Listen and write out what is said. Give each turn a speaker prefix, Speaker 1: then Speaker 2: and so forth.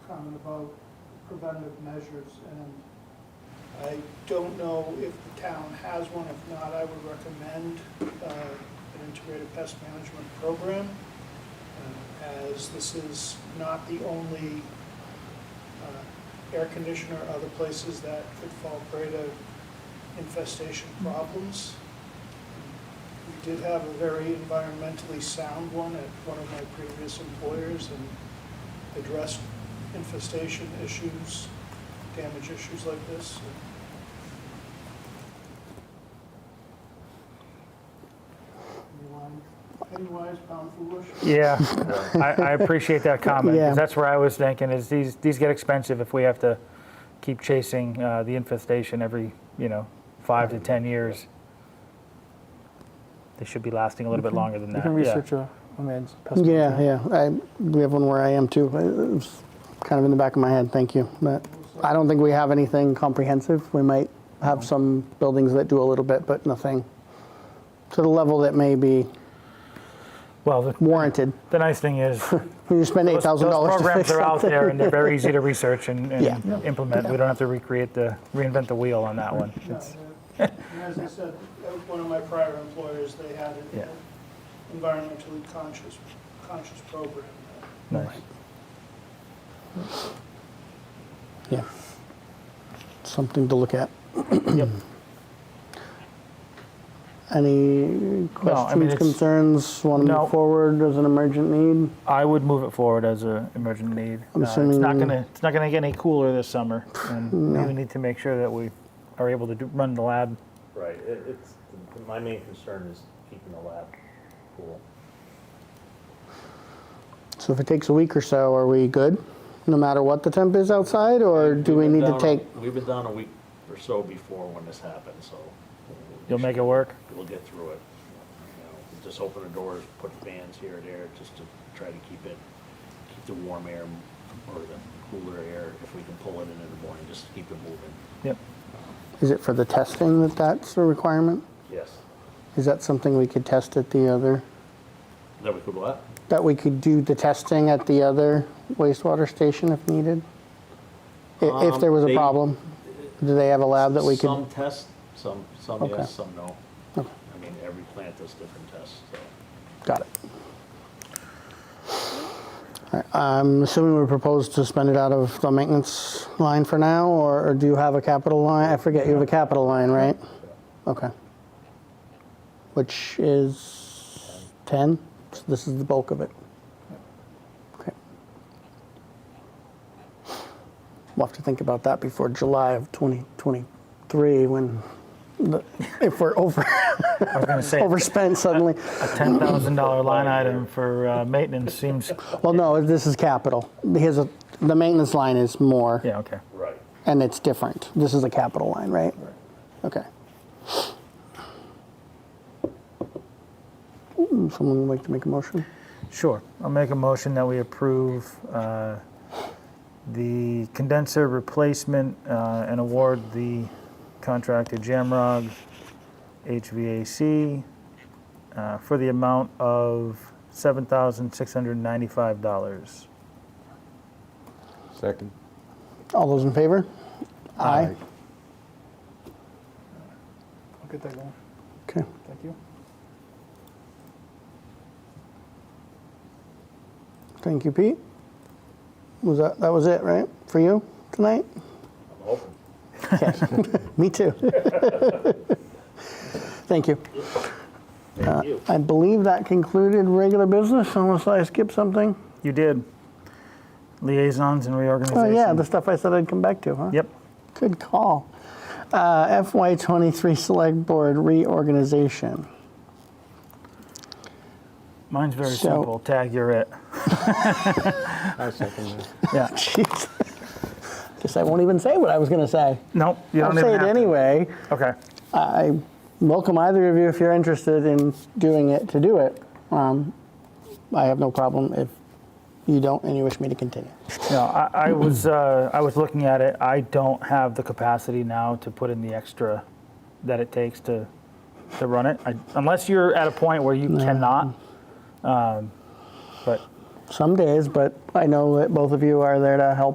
Speaker 1: comment about preventive measures, and I don't know if the town has one. If not, I would recommend uh, an integrated pest management program, uh, as this is not the only uh, air conditioner, other places that could fall prey to infestation problems. We did have a very environmentally sound one at one of my previous employers and addressed infestation issues, damage issues like this. Anyone, Pennywise, pound foolish?
Speaker 2: Yeah, I, I appreciate that comment,
Speaker 3: Yeah.
Speaker 2: because that's where I was thinking, is these, these get expensive if we have to keep chasing uh, the infestation every, you know, five to 10 years. They should be lasting a little bit longer than
Speaker 4: You
Speaker 2: that.
Speaker 4: can
Speaker 2: yeah.
Speaker 4: research a, a man's pest.
Speaker 3: Yeah, yeah. I, we have one where I am too. It was kind of in the back of my head. Thank you. But I don't think we have anything comprehensive. We might have some buildings that do a little bit, but nothing to the level that may be
Speaker 2: Well, the,
Speaker 3: warranted.
Speaker 2: the nice thing is,
Speaker 3: When you spend eight
Speaker 2: those,
Speaker 3: thousand
Speaker 2: those
Speaker 3: dollars to
Speaker 2: programs
Speaker 3: fix
Speaker 2: are out
Speaker 3: something.
Speaker 2: there, and they're very easy to research and, and
Speaker 3: Yeah. Yeah.
Speaker 2: implement. We don't have to recreate the, reinvent the wheel on that one.
Speaker 1: Yeah, uh, And as I said, at one of my prior employers, they had
Speaker 2: Yeah.
Speaker 1: an environmentally conscious, conscious program. that-
Speaker 2: Nice.
Speaker 3: Yeah, something to look at.
Speaker 2: Yep.
Speaker 3: Any questions,
Speaker 2: it's-
Speaker 3: concerns? Want to
Speaker 2: No.
Speaker 3: move forward as an emergent need?
Speaker 2: I would move it forward as an emergent need.
Speaker 3: I'm
Speaker 2: Uh, it's not
Speaker 3: assuming- Mm,
Speaker 2: gonna it's not gonna get any cooler this summer, and we need to make sure that we are able to do, run the lab.
Speaker 5: Right, it, it's, my main concern is keeping the lab cool.
Speaker 3: So if it takes a week or so, are we good? No matter what the temp is outside, or do we
Speaker 5: We've been
Speaker 3: need to
Speaker 5: down a-
Speaker 3: take?
Speaker 5: We've been down a week or so before when this happened, so.
Speaker 2: You'll make it work.
Speaker 5: We'll get through it. You know, Just open the doors, put fans here and there, just to try to keep it, keep the warm air or the cooler air, if we can pull it in in the morning, just to keep it moving.
Speaker 2: Yep.
Speaker 3: Is it for the testing that that's a requirement?
Speaker 5: Yes.
Speaker 3: Is that something we could test at the other?
Speaker 5: Then we could what?
Speaker 3: That we could do the testing at the other wastewater station if needed? I- If
Speaker 5: Um,
Speaker 3: there was a
Speaker 5: they-
Speaker 3: problem, do they have a lab that we
Speaker 5: Some
Speaker 3: could?
Speaker 5: test, some, some
Speaker 3: Okay.
Speaker 5: yes, some no. I mean, every plant does different tests, so.
Speaker 3: Got it. All right, I'm assuming we propose to spend it out of the maintenance line for now, or or do you have a capital line? I forget, you have a capital line, right? Okay. Which is 10? So This is the bulk of it. Okay. We'll have to think about that before July of 2023, when, the- if we're over,
Speaker 2: I was gonna say a
Speaker 3: overspent suddenly.
Speaker 2: ten thousand dollar line item for uh, maintenance seems.
Speaker 3: Well, no, this is capital. Because of- the maintenance line is more,
Speaker 2: Yeah. Okay.
Speaker 5: Right.
Speaker 3: and it's different. This is a capital line, right? Okay. Mm, Someone would like to make a motion?
Speaker 2: Sure. I'll make a motion that we approve uh, the condenser replacement uh, and award the contract to Jamrog HVAC uh, for the amount of $7,695.
Speaker 6: Second.
Speaker 3: All those in favor? Aye.
Speaker 4: I'll get that going.
Speaker 3: Okay.
Speaker 4: Thank you.
Speaker 3: Thank you, Pete. Was that, that was it, right, for you tonight?
Speaker 5: I'm hoping.
Speaker 3: Me too. Thank you. Uh,
Speaker 5: Thank you.
Speaker 3: I believe that concluded regular business, unless I skipped something.
Speaker 2: You did. Liaisons and
Speaker 3: Oh,
Speaker 2: reorganization.
Speaker 3: yeah, the stuff I said I'd come back to, huh?
Speaker 2: Yep.
Speaker 3: Good call. Uh, FY23 Select Board reorganization.
Speaker 2: Mine's very
Speaker 3: So-
Speaker 2: simple. Tag, you're it.
Speaker 6: I second that.
Speaker 2: Yeah.
Speaker 3: Jeez. Guess I won't even say what I was going to say.
Speaker 2: Nope. You
Speaker 3: I'll
Speaker 2: don't
Speaker 3: say
Speaker 2: even
Speaker 3: it
Speaker 2: have to.
Speaker 3: anyway.
Speaker 2: Okay.
Speaker 3: I welcome either of you if you're interested in doing it to do it. Um, I have no problem if you don't and you wish me to continue.
Speaker 2: No, I, I was uh, I was looking at it. I don't have the capacity now to put in the extra that it takes to to run it, I, unless you're at a point where you cannot. Um, but
Speaker 3: Some days, but I know that both of you are there to help